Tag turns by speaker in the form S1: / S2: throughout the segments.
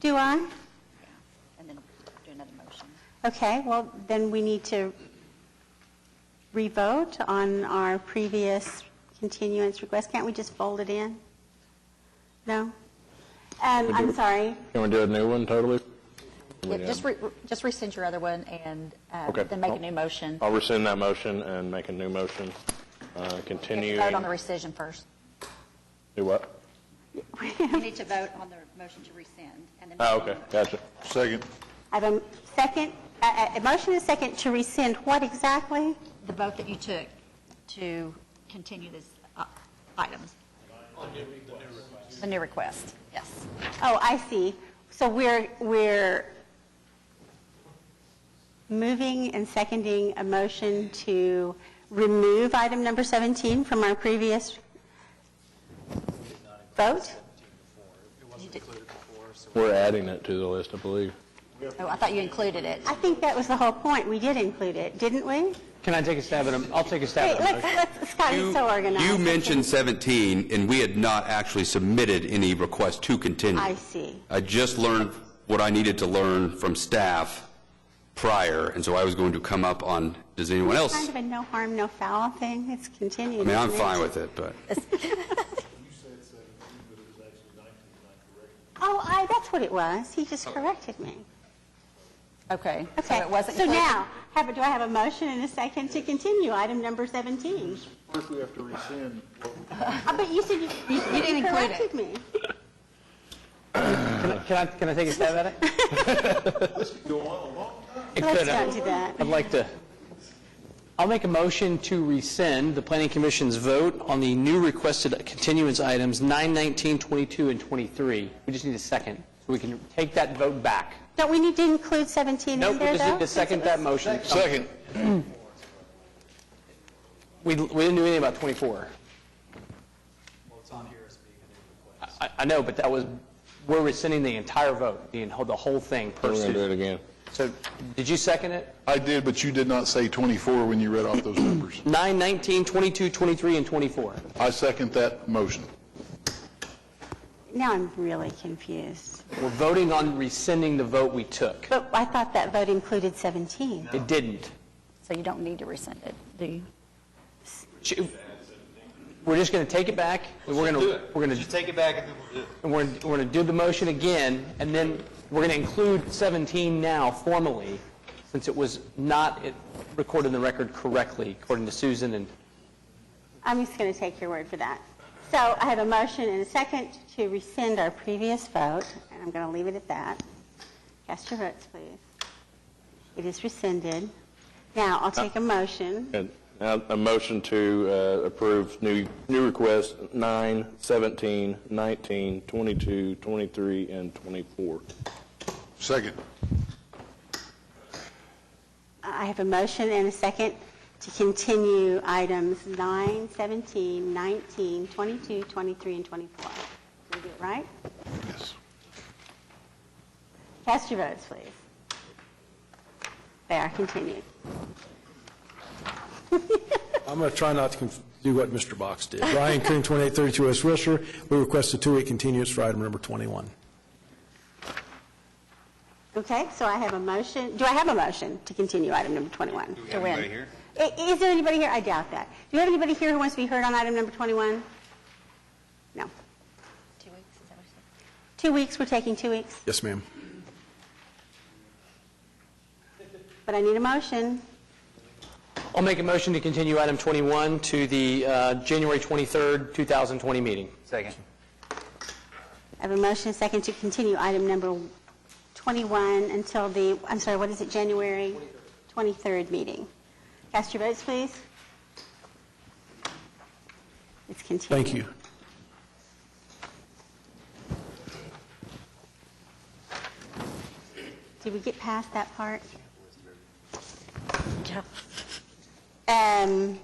S1: Do I?
S2: and then do another motion.
S1: Okay, well, then we need to revote on our previous continuance request. Can't we just fold it in? No? Um, I'm sorry.
S3: Can we do a new one totally?
S2: Yeah, just re- just rescind your other one and uh,
S3: Okay.
S2: then make a new motion.
S3: I'll rescind that motion and make a new motion, uh,
S2: You
S3: continuing.
S2: have to Vote on the rescission first.
S3: Do what?
S4: You need to vote on the motion to rescind, and then...
S3: Oh, okay, gotcha.
S5: Second.
S1: I have a second, a a- a motion and a second to rescind what exactly?
S4: The vote that you took to continue this uh, items.
S2: The new request, yes.
S1: Oh, I see. So we're, we're moving and seconding a motion to remove item number 17 from our previous vote?
S3: We're adding it to the list, I believe.
S2: Oh, I thought you included it.
S1: I think that was the whole point. We did include it, didn't we?
S6: Can I take a stab at him? I'll take a stab
S1: Wait,
S6: at him.
S1: let's, let's, Scott is
S7: You-
S1: so organized.
S7: You mentioned 17, and we had not actually submitted any request to continue.
S1: I see.
S7: I just learned what I needed to learn from staff prior, and so I was going to come up on, does anyone else?
S1: Kind of
S7: I
S1: a no harm, no foul thing. It's continued.
S7: mean, I'm
S1: isn't it?
S7: fine with it, but
S1: Oh, I, that's what it was. He
S7: Oh.
S1: just corrected me.
S2: Okay. So
S1: Okay.
S2: it wasn't
S1: So
S2: included.
S1: now, have, a- do I have a motion and a second to continue item number 17?
S5: First, we have to rescind.
S1: Uh, But you said you, you
S2: didn't include it.
S1: corrected me.
S6: Can I- Can I, can I take a stab at it? It
S1: Let's
S6: could.
S1: not do that.
S6: I'd like to, I'll make a motion to rescind the planning commission's vote on the new requested continuance items 9, 19, 22, and 23. We just need a second, so we can take that vote back.
S1: Don't we need to include 17 in there,
S6: Nope,
S1: though?
S6: we just need to
S1: since
S6: second
S1: it
S6: that
S1: was-
S6: motion.
S5: Second.
S6: We, we didn't do anything about 24. I, I know, but that was, we're rescinding the entire vote, the, the whole thing per
S3: We're going to do it
S6: se.
S3: again.
S6: So, did you second it?
S5: I did, but you did not say 24 when you read off those numbers.
S6: 9, 19, 22, 23, and 24.
S5: I second that motion.
S1: Now I'm really confused.
S6: We're voting on rescinding the vote we took.
S1: But I thought that vote included 17.
S6: It didn't.
S2: So you don't need to rescind it, do you?
S6: Sh- We're just going to take it back, and we're going to, we're going to,
S8: take it back and then we'll do it.
S6: we're going to do the motion again, and then we're going to include 17 now formally, since it was not it- recorded in the record correctly, according to Susan, and
S1: I'm just going to take your word for that. So I have a motion and a second to rescind our previous vote, and I'm going to leave it at that. Cast your votes, please. It is rescinded. Now, I'll take a motion.
S3: And now a motion to uh, approve new, new requests, 9, 17, 19, 22, 23, and 24.
S5: Second.
S1: I have a motion and a second to continue items 9, 17, 19, 22, 23, and 24. Did I get it right?
S5: Yes.
S1: Cast your votes, please. They are continued.
S9: I'm going to try not to conf- do what Mr. Box did. Ryan Coon, 2832 West Wilshire, we request a two-week continuance for item number 21.
S1: Okay, so I have a motion, do I have a motion to continue item number 21?
S2: To win.
S1: I- Is there anybody here? I doubt that. Do you have anybody here who wants to be heard on item number 21? No.
S4: Two weeks, is that what you said?
S1: Two weeks, we're taking two weeks,
S9: Yes, ma'am.
S1: but I need a motion.
S6: I'll make a motion to continue item 21 to the uh, January 23rd, 2020 meeting.
S8: Second.
S1: I have a motion, and a second, to continue item number 21 until the, I'm sorry, what is it, January 23rd meeting. Cast your votes, please. It's continued.
S9: Thank you.
S1: Did we get past that part? Um,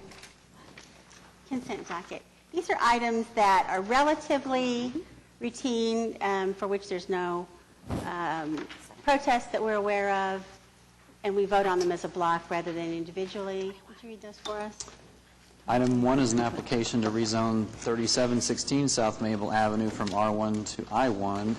S1: Consent docket. These are items that are relatively routine, um, for which there's no um, protest that we're aware of, and we vote on them as a block rather than individually. Would you read those for us?
S10: Item one is an application to rezone 3716 South Mabel Avenue from R1 to I1